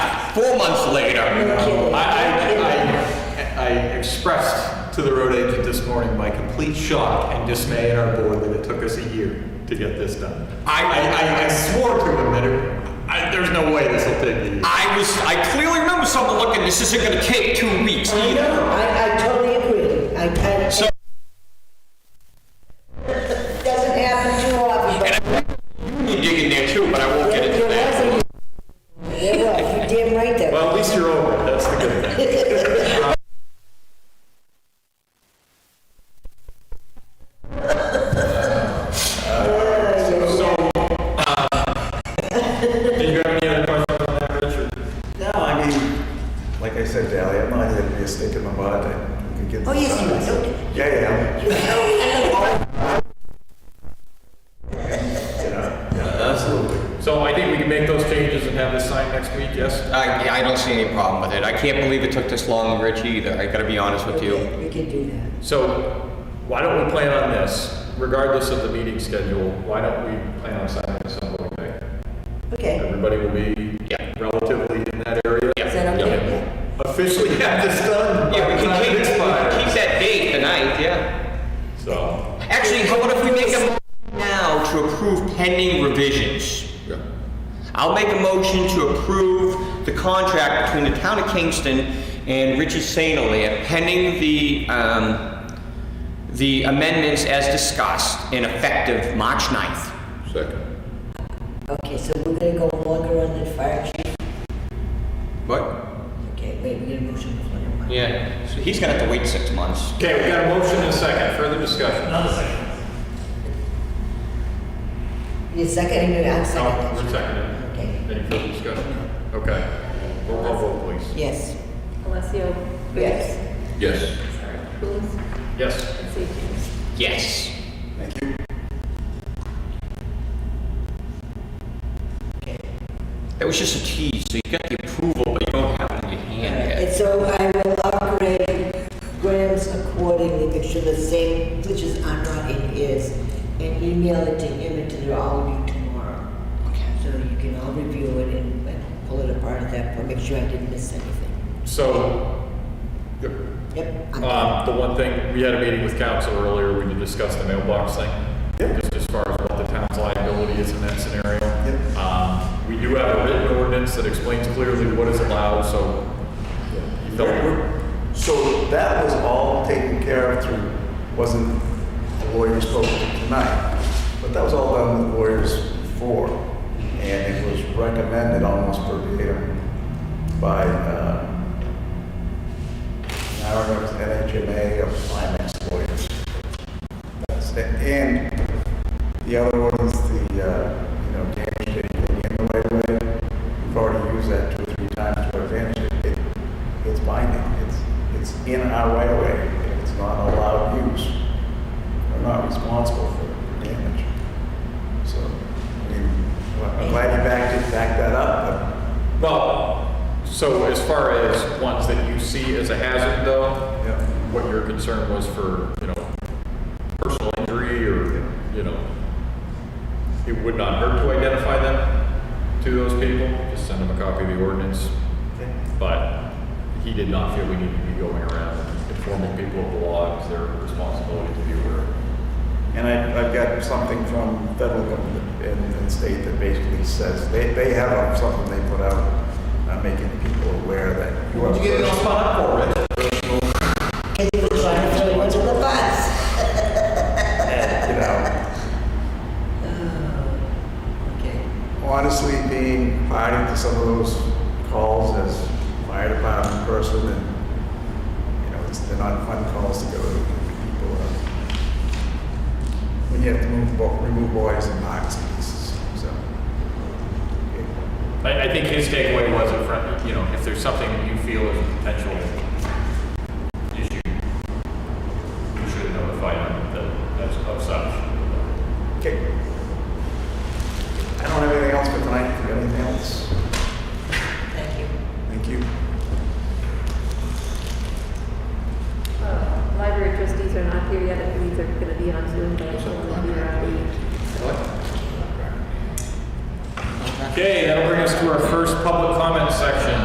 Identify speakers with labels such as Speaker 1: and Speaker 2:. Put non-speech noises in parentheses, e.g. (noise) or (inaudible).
Speaker 1: Four months later,
Speaker 2: kidding.
Speaker 1: I, I, I, I expressed to the road agent this morning my complete shock and dismay at our board that it took us a year to get this done. I, I, I swore to him that it, I, there's no way this will take a year.
Speaker 3: I was, I clearly remember someone looking, this isn't gonna take two weeks
Speaker 2: I
Speaker 3: either.
Speaker 2: know, I, I totally agree. I, I.
Speaker 3: So-
Speaker 2: Doesn't happen too often, but.
Speaker 3: You dig in there too, but I won't get into
Speaker 2: There
Speaker 3: that.
Speaker 2: was a, there was, you damn right there.
Speaker 1: Well, at least you're over it, that's the good thing.
Speaker 4: (laughs) uh, Did you have any other questions on that, Richard?
Speaker 5: No, I mean, like I said, Dally, I'm not here to be a stick in the mud. I- We could get
Speaker 2: Oh,
Speaker 5: this
Speaker 2: yes, you
Speaker 5: done.
Speaker 2: are, don't-
Speaker 5: Yeah, yeah.
Speaker 2: You know,
Speaker 4: So I think we can make those changes and have this signed next week, yes?
Speaker 3: I, Uh, I don't see any problem with it. I can't believe it took this long, Rich, either. I gotta be honest with you.
Speaker 2: We can do that.
Speaker 4: So why don't we plan on this, regardless of the meeting schedule, why don't we plan on signing this on voting day?
Speaker 2: Okay,
Speaker 4: Everybody will be
Speaker 3: Yeah.
Speaker 4: relatively in that area.
Speaker 2: is that okay?
Speaker 1: Officially have this done.
Speaker 3: Yeah, we
Speaker 1: By
Speaker 3: can
Speaker 1: the time
Speaker 3: keep,
Speaker 1: it
Speaker 3: we can
Speaker 1: expires.
Speaker 3: keep that date, the ninth, yeah.
Speaker 4: So,
Speaker 3: Actually, how about if we make a motion now to approve pending revisions? I'll make a motion to approve the contract between the town of Kingston and Richard Sainoli pending the, um, the amendments as discussed and effective March 9th.
Speaker 4: second.
Speaker 2: Okay, so we're gonna go longer on the fire chief.
Speaker 3: What?
Speaker 2: Okay, wait, we get a motion before you. mind.
Speaker 3: Yeah, so he's gonna have to wait six months.
Speaker 4: Okay, we got a motion and a second, further discussion?
Speaker 6: Another second.
Speaker 2: You second, and I'm
Speaker 4: No, we're
Speaker 2: second.
Speaker 4: seconded.
Speaker 2: Okay,
Speaker 4: Any further discussion? Okay. Roll call vote, please.
Speaker 2: yes,
Speaker 7: Alessio.
Speaker 2: yes.
Speaker 4: Yes.
Speaker 7: Sorry, Coombs,
Speaker 4: Yes.
Speaker 7: and St. James.
Speaker 3: Yes. That was just a tease, so you got the approval, but you don't have it in your hand yet.
Speaker 2: And so I will upgrade Graham's accordingly, make sure the same, which is I'm not in his, and email it to him and to all of you tomorrow. So you can all review it and and pull it apart at that point, make sure I didn't miss anything.
Speaker 4: So,
Speaker 2: Yep. I'm-
Speaker 4: um, the one thing, we had a meeting with council earlier, we discussed the mailbox thing. Just as far as what the town's liability is in that scenario.
Speaker 5: Yep.
Speaker 4: Um, we do have a written ordinance that explains clearly what is allowed, so. you
Speaker 5: We're-
Speaker 4: don't-
Speaker 5: we're- So that was all taken care of through, wasn't the lawyers spoke to tonight, but that was all done with lawyers before. And it was recommended almost verbatim by, uh, I don't remember, if it's NHMA or finance lawyers. That's it. And the other one is the, uh, you know, damage that you can get in the right of way. We've already used that two or three times to our advantage. It- It's binding. It's, it's in our right of way. If It's not allowed use. We're not responsible for damage. So, I mean, I'm glad you backed it, backed that up,
Speaker 4: Well, so as far as ones that you see as a hazard though,
Speaker 5: but, yeah.
Speaker 4: what your concern was for, you know, personal injury or, you know, it would not hurt to identify them to those people, just send them a copy of the ordinance. But he did not feel we needed to be going around informing people of the law, it's their responsibility to be aware.
Speaker 5: And I, I've got something from federal government and, and state that basically says, they, they have something they put out, uh, making people aware that. you are first.
Speaker 4: spun up for, Rich?
Speaker 2: Cause he was trying to throw you under the bus.
Speaker 5: You know,
Speaker 2: Okay.
Speaker 5: honestly, being party to some of those calls as fire department person and, you know, it's, they're not fun calls to go to. People are, when you have to move, bo- remove boys and box and pieces, so.
Speaker 4: I, I think his takeaway was in front, you know, if there's something that you feel is a potential issue, you should notify them that that's of such.
Speaker 5: Okay. I don't have anything else for tonight. If you got anything else?
Speaker 2: Thank you.
Speaker 5: Thank you.
Speaker 7: Uh, Library trustees are not here yet, I believe they're gonna be on Zoom, but I think they'll be around.
Speaker 4: Okay, that'll bring us to our first public comment section.